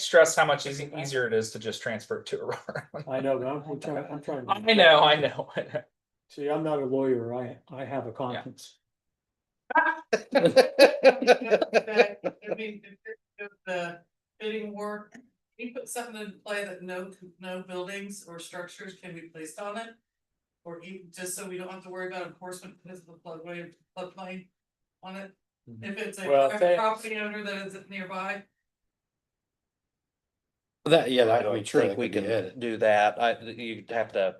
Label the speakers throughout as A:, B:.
A: stress how much easy- easier it is to just transfer it to Aurora.
B: I know, but I'm I'm trying, I'm trying. to-
A: I know, I know.
B: See, I'm not a lawyer. I, I have a conscience.
C: that, I mean, if it- if the bidding war, you put something in play that no, no buildings or structures can be placed on it. Or even, just so we don't have to worry about enforcement because of the floodway, floodplain on it. If it's a
B: Well,
C: private
B: thanks.
C: property owner that is nearby,
D: That, yeah,
E: I
D: that would be
E: don't
D: true. That
E: think we
D: could be
E: can
D: added.
E: do that. I, you'd have to,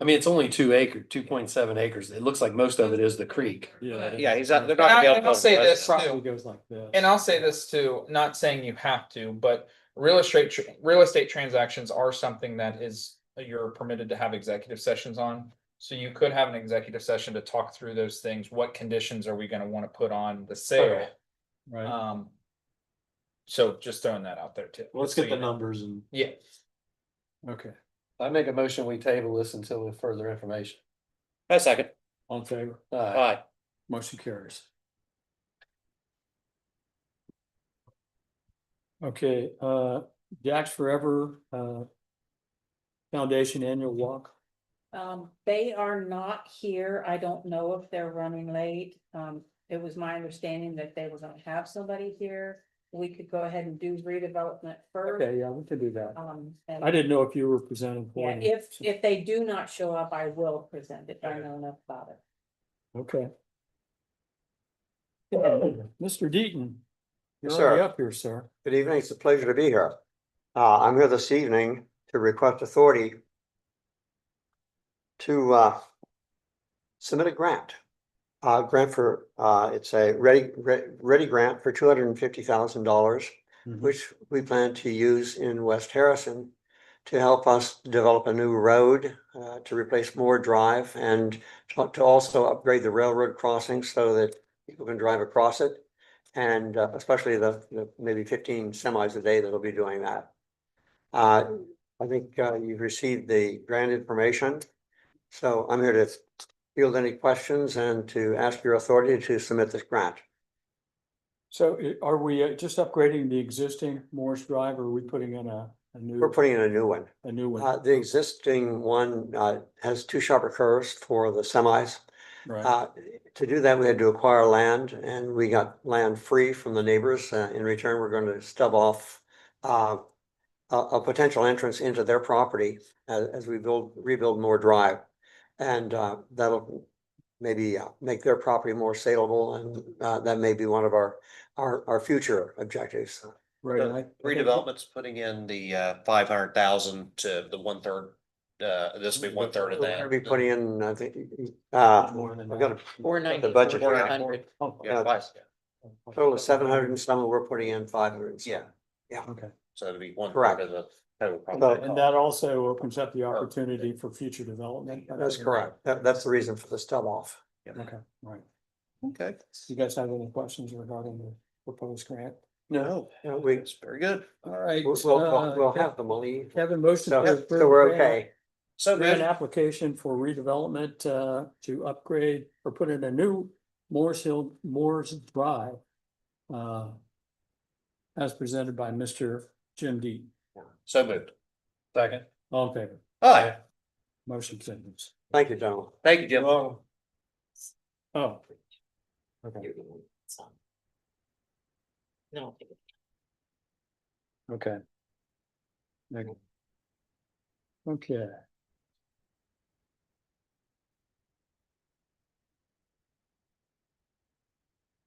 D: I mean, it's only two acre, two point seven acres. It looks like most of it is the creek.
B: Yeah.
E: yeah, he's, not- they're
A: And I-
E: not. gonna be
A: and
E: able to
A: I'll
E: build a
A: say this,
E: residence.
B: Probably goes like this.
A: And I'll say this too, not saying you have to, but real estate, tr- real estate transactions are something that is, you're permitted to have executive sessions on. So you could have an executive session to talk through those things. What conditions are we gonna wanna put on the sale?
B: Right.
A: Um. So just throwing that out there too.
B: Let's
A: So
B: get the
A: you know.
B: numbers and,
A: Yeah,
B: okay,
D: I make a motion, we table this until we have further information.
E: A second,
B: on favor,
D: Uh,
E: alright,
B: motion carries. Okay, uh, Jack's Forever, uh. Foundation Annual Walk,
F: Um, they are not here. I don't know if they're running late. Um, it was my understanding that they were gonna have somebody here. We could go ahead and do redevelopment first.
B: okay, yeah, we can do that.
F: Um,
B: I
F: and
B: didn't know if you were presenting. for
F: yeah,
B: me.
F: if, if they do not show up, I will present it. I know enough about it.
B: Okay. Mr. Deaton. You're
G: Yes,
B: already
G: sir.
B: up here, sir.
G: Good evening. It's a pleasure to be here. Uh, I'm here this evening to request authority to, uh, submit a grant. Uh, grant for, uh, it's a ready, re- ready grant for two hundred and fifty thousand dollars,
B: Mhm.
G: which we plan to use in West Harrison to help us develop a new road, uh, to replace Moore Drive and to to also upgrade the railroad crossing so that people can drive across it. And uh, especially the, the maybe fifteen semis a day that'll be doing that. Uh, I think uh, you've received the grant information. So I'm here to field any questions and to ask your authority to submit this grant.
B: So i- are we uh, just upgrading the existing Morris Drive or are we putting in a, a new,
G: We're putting in a new one.
B: a new
G: Uh,
B: one?
G: the existing one uh, has two sharper curves for the semis.
B: Right,
G: Uh, to do that, we had to acquire land and we got land free from the neighbors. Uh, in return, we're going to stub off uh, a, a potential entrance into their property as, as we build, rebuild more drive. And uh, that'll maybe uh, make their property more saleable and uh, that may be one of our, our, our future objectives.
B: right. and I- I think-
E: redevelopment's putting in the, uh, five hundred thousand to the one third, uh, this will be one third of
G: We're gonna
E: that.
G: be putting in, I think, uh,
B: More than
G: I've got a
F: Four
G: the budget.
E: four hundred.
B: Oh,
E: Yeah, twice, yeah.
G: total of seven hundred and some, we're putting in five hundred. uh,
E: Yeah,
B: Okay,
E: so it'll be one
G: Correct.
E: third of the total.
G: But-
E: probably.
B: and that also opens up the opportunity for future development.
G: That's correct. uh, That, that's the reason for the stub off.
B: Okay, right.
E: Okay.
B: You guys have any questions regarding the proposed grant?
E: No,
G: Yeah, we,
E: it's very good.
B: All right. uh,
G: we'll, we'll- we'll, we'll have the money.
B: Kevin, motion.
G: So,
B: to
G: so
B: approve
G: we're
B: grant-
G: okay.
E: So
B: Grant
E: good.
B: application for redevelopment uh to upgrade or put in a new Morris Hill, Moore's Drive. Uh. As presented by Mr. Jim Deaton.
E: So moved.
D: second.
B: all in favor,
E: Alright,
B: motion sentence.
G: Thank you, gentlemen.
E: thank you, Jim.
B: Oh,
C: no.
B: okay. Neg- Okay.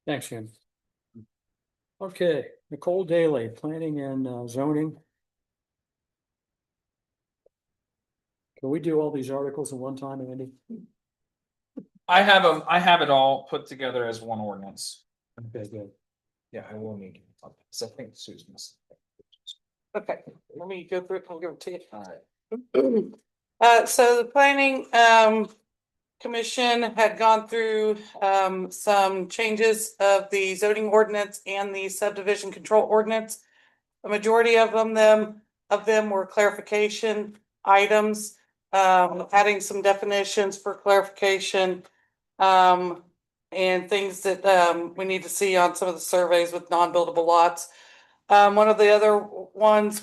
B: Thanks, Jim. Okay, Nicole Daly, planning and uh, zoning. Can we do all these articles in one time, Andy?
A: I have them, I have it all put together as one ordinance.
B: Okay, good.
A: Yeah, I will need. So I think Susan's.
C: Okay, let me go through it, I'll give it to you. Uh, so the planning, um, commission had gone through, um, some changes of the zoning ordinance and the subdivision control ordinance. A majority of them, them, of them were clarification items, um, adding some definitions for clarification. Um, and things that, um, we need to see on some of the surveys with non-buildable lots. Um, one of the other ones